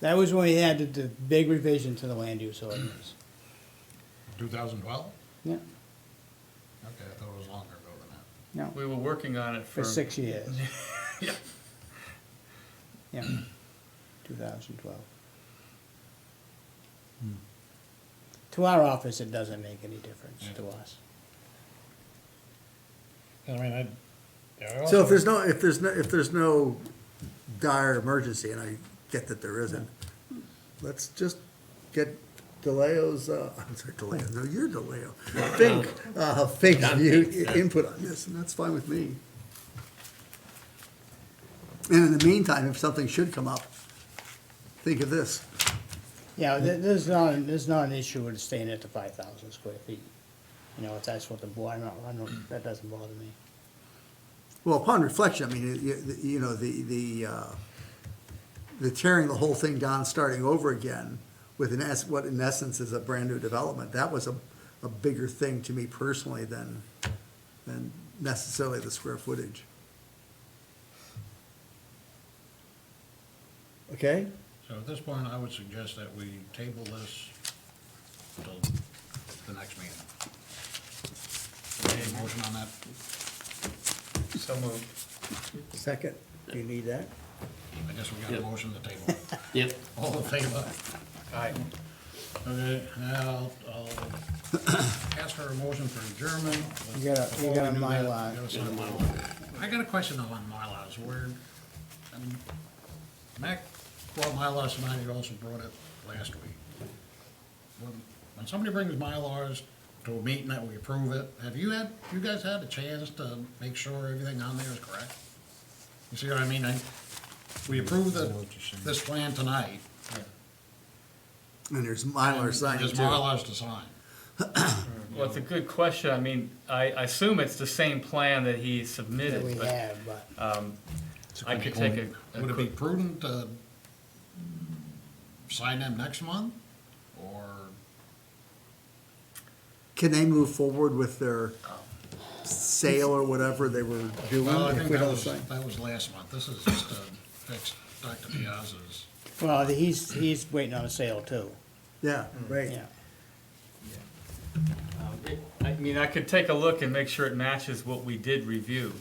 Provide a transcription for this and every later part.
That was when we had the, the big revision to the land use ordinance. 2012? Yeah, Okay, I thought it was longer ago than that. no, We were working on it for for. six years. Yeah. Yeah, two thousand twelve. To our office, it doesn't make any difference to us. I mean, I. yeah, I So if also- there's no, if there's no, if there's no dire emergency, and I get that there isn't, let's just get DeLeo's, uh, I'm sorry, DeLeo, no, you're DeLeo. Fink, uh, Fink's view, i- input on this, and that's fine with me. And in the meantime, if something should come up, think of this. Yeah, th- this is not, this is not an issue with staying at the five thousand square feet. You know, if that's what the board, I don't, I don't, that doesn't bother me. Well, upon reflection, I mean, it- you, you know, the, the, uh, the tearing the whole thing down, starting over again with an es, what in essence is a brand-new development, that was a, a bigger thing to me personally than, than necessarily the square footage. Okay? So at this point, I would suggest that we table this until the next meeting. Any motion on that? So moved. Second, do you need that? I guess we got a Yep. motion to table. it. Yep. All in favor? Aye. Mm-hmm. Okay, now, I'll- I'll ask for a motion for adjournment. You gotta- you gotta Before we do that, Mylar. you gotta sign Gotta Mylar. I got a question though on Mylars, where, I mean, Mac brought Mylars tonight, he also brought it last week. When- When somebody brings Mylars to a meeting that we approve it, have you had, you guys had a chance to make sure everything on there is correct? You see what I mean? I- We approved the, this plan tonight. And there's Mylar signed There's too. Mylars to sign. Well, it's a good question. I mean, I, I assume it's the same plan that That he we submitted, but have, but, I could take a, a Would it be quick, prudent to sign them next month, or, Can they move forward with their sale or whatever they were doing? well, I if think we that don't was, sign? that was last month, this is just to fix Dr. Piazza's. well, he's, he's waiting on a sale too, Yeah, right. yeah. um, it- I mean, I could take a look and make sure it matches what we did review.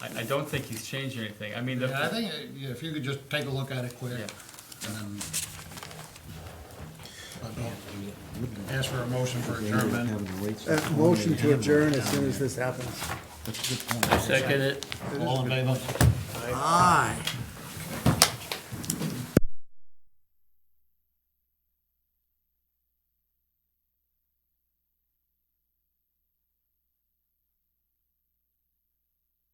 I, I don't think he's changing anything. I mean, the. Yeah, I think, uh, yeah, if you could just take a look at it quick, Yeah. and then. Ask for a motion for adjournment, Uh, Motion to adjourn as soon as this happens. Second it. all in favor? Aye.